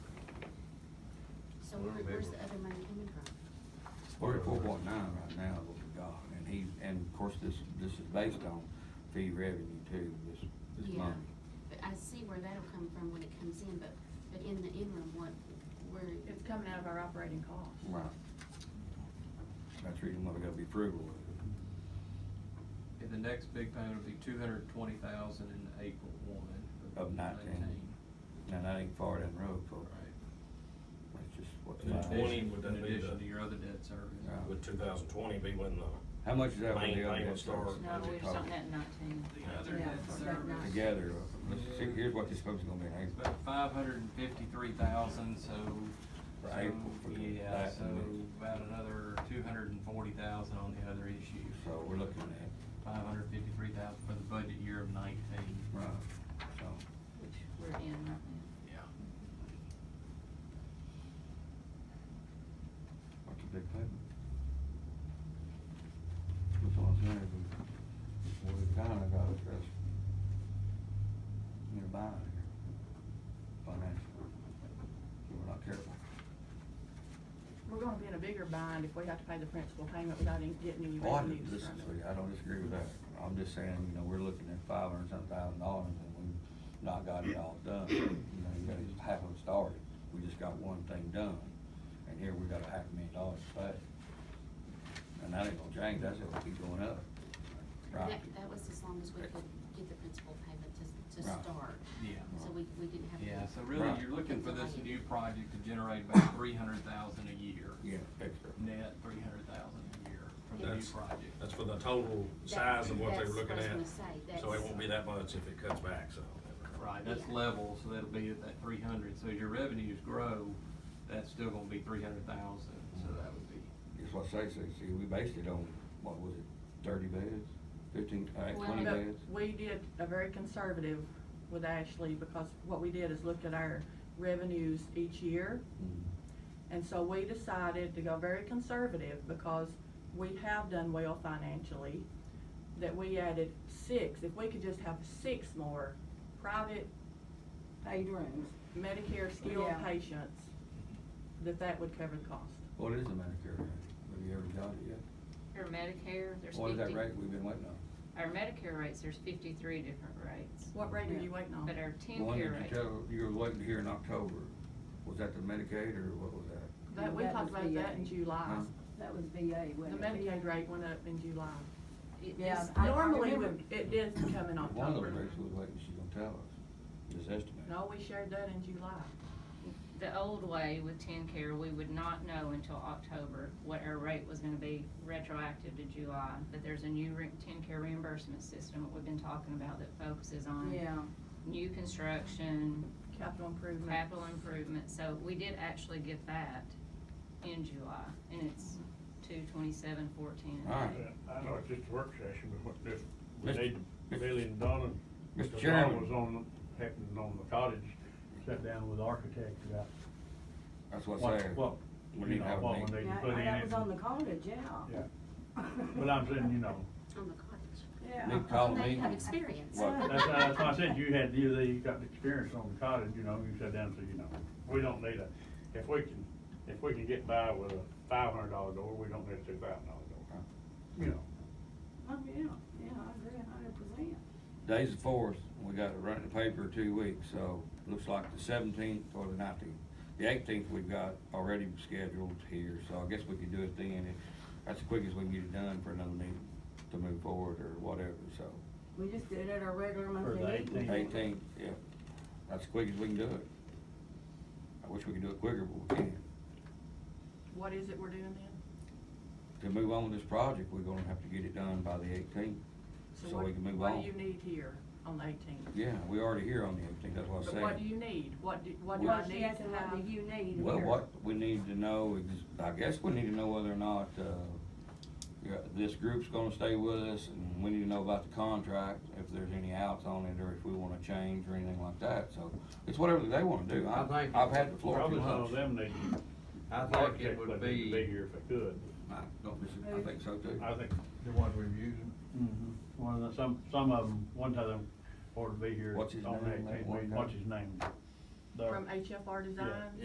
where- Where- where's where's the the other money coming from? We're at four point nine right now, what we got, and he, and of course, this, this is based on fee revenue too, this, this Yeah, money. but I see where that'll come from when it comes in, but, but in the interim, what, where, It's coming out of our operating cost. Right. That's the reason why we gotta be frugal with it. And the next big payment will be two hundred twenty thousand in April one. Of 19. Now, that ain't far down the road, folks. That's just what. In Right. Right. addition, 20 would that in be addition the- to your other debt service. Yeah. Would two thousand twenty be when the, Uh, How much is that with Main the other thing debt will start. service? No, we just don't net nineteen. the other? Yeah, debt but service. not- Together, uh, let's see, here's what this is gonna be, in It's April. about five hundred and fifty-three thousand, so, For so, April, for the yeah, back so and about another two hundred and forty thousand on the other issue. so we're looking at, Five hundred fifty-three thousand for the budget year of nineteen. right, so, Which we're in right now. Yeah. what's a big payment? That's what I'm saying, we, we kinda gotta address nearby here, financially, if we're not careful. We're gonna be in a bigger bind if we have to pay the principal payment without any- getting any Oh, I, revenues this, from see, it. I don't disagree with that, I'm just saying, you know, we're looking at five hundred something thousand dollars, and we've not got it all done, you know, you got it half of it started, we just got one thing done, and here we got a half a million dollars to pay. And that ain't gonna change, that's gonna keep going up, right? That, that was as long as we could get the principal payment to, to Right. start. Yeah. So we, we didn't have. to- Yeah, so really, Right. you're looking for this new project to generate about three hundred thousand a year. Yeah, extra. Net three hundred thousand a year for the new That's- project. that's for the total That's- size of what they were that's looking what I at? was gonna say, So it that's- won't be that much if it cuts back, so. Right, that's Yeah. level, so that'll be at that three hundred, so as your revenues grow, that's still gonna be three hundred thousand, so that would be. That's what I say, see, see, we based it on, what was it, thirty beds, fifteen, uh, Well, twenty but beds? But we did a very conservative with Ashley because what we did is looked at our revenues each year. Mm. And so we decided to go very conservative because we have done well financially, that we added six, if we could just have six more private Paid rooms. Medicare skilled Yeah. patients, that that would cover the cost. What is the Medicare rate, have you ever got it yet? Our Medicare, there's fifty. What is that rate we've been waiting on? Our Medicare rates, there's fifty-three different rates. What rate are you waiting on? But our The one ten-care that rate. you tell, you were waiting to hear in October, was that the Medicaid or what was that? That, we That talked was about that VA. in July. Huh? That was VA, The wasn't it? Medicaid rate went up in July. It- Yeah, this- I- I Normally, remember- we- it did come in One of the October. rates we was waiting, she's gonna tell us, this estimate. No, we shared that in July. The old way with ten-care, we would not know until October what our rate was gonna be retroactive to July. But there's a new ten-care reimbursement system that we've been talking about that focuses on Yeah, new construction, Capital improvement. capital improvement, so we did actually get that in July, and it's two twenty-seven fourteen. All right. I know it's just a work session, but what this, we Mr. need Billy and Donna. Mr. because Chairman. I was on, happened on the cottage, sat down with architects about. That's what's what- there. What, We you need to know, have a what we meeting. need to yeah, put in. that was it. on the college, yeah. Yeah, but I'm saying, you know, On the cottage. Yeah. They called They me. have experience. What? that's, why- that's why I said you had, you, you got the experience on the cottage, you know, you sat down and said, you know, we don't need a, if we can, if we can get by with a five hundred dollar door, we don't need a two thousand dollar door. You know, Oh, yeah, yeah, I agree a hundred percent. Day's the fourth, and we got to run the paper two weeks, so looks like the seventeenth or the nineteenth. The eighteenth we've got already scheduled here, so I guess we could do it then, if, that's the quickest we can get it done for another meeting to move forward or whatever, so. We just did it at our regular For the monthly meeting. 18th. Eighteenth, yeah, that's the quickest we can do it. I wish we could do it quicker, but we can't. What is it we're doing then? to move on with this project, we're gonna have to get it done by the eighteenth, so what- we can move What do you on. need here on the eighteenth? Yeah, we already here on the eighteenth, that's what But I what do said. you need? What do, what do I Well, need she to asked him, what have? do you need? Well, here? what we need to know, is- I guess we need to know whether or not, uh, yeah, this group's gonna stay with us, and we need to know about the contract, if there's any outs on it, or if we wanna change or anything like that, so it's whatever they wanna do. I, I think- I've had the floor too probably some of much. them need, I think it architects would would need to be be, here if they could. I don't disagree, I think so too. I think The ones we've used, Mhm. One of the, some, some of them, one of them ought to be here. What's his on name, that that team one meeting. guy? What's his name? The- From HFR Design?